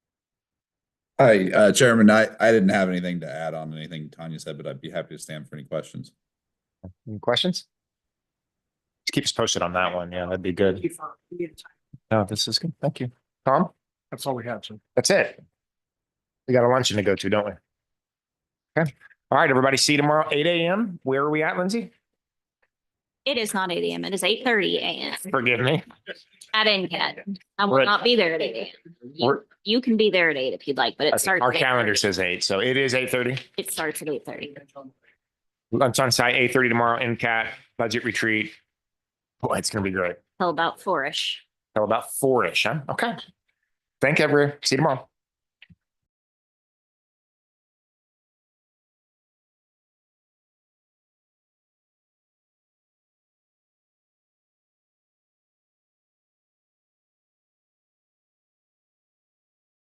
Hi, uh, Chairman, I, I didn't have anything to add on anything Tanya said, but I'd be happy to stand for any questions. Any questions? Just Keep us posted on that one. Yeah, that'd be good. No, this is good. Thank you. Tom, That's all we have, sir. that's it. We got a luncheon to go to, don't we? Okay. All right, everybody. See you tomorrow, eight AM. Where are we at, Lindsay? It is not eight AM. It is eight thirty AM. Forgive me. I didn't get, I We're will at- not be there at eight AM. We're- You can be there at eight if you'd like, but it starts. Our at calendar 8:30. says eight, so it is eight thirty. It starts at eight thirty. Lunch on site, eight thirty tomorrow, NCAT budget retreat. Boy, it's gonna be great. till about four-ish. Till about four-ish, huh? Okay. Thank you, everyone. See you tomorrow.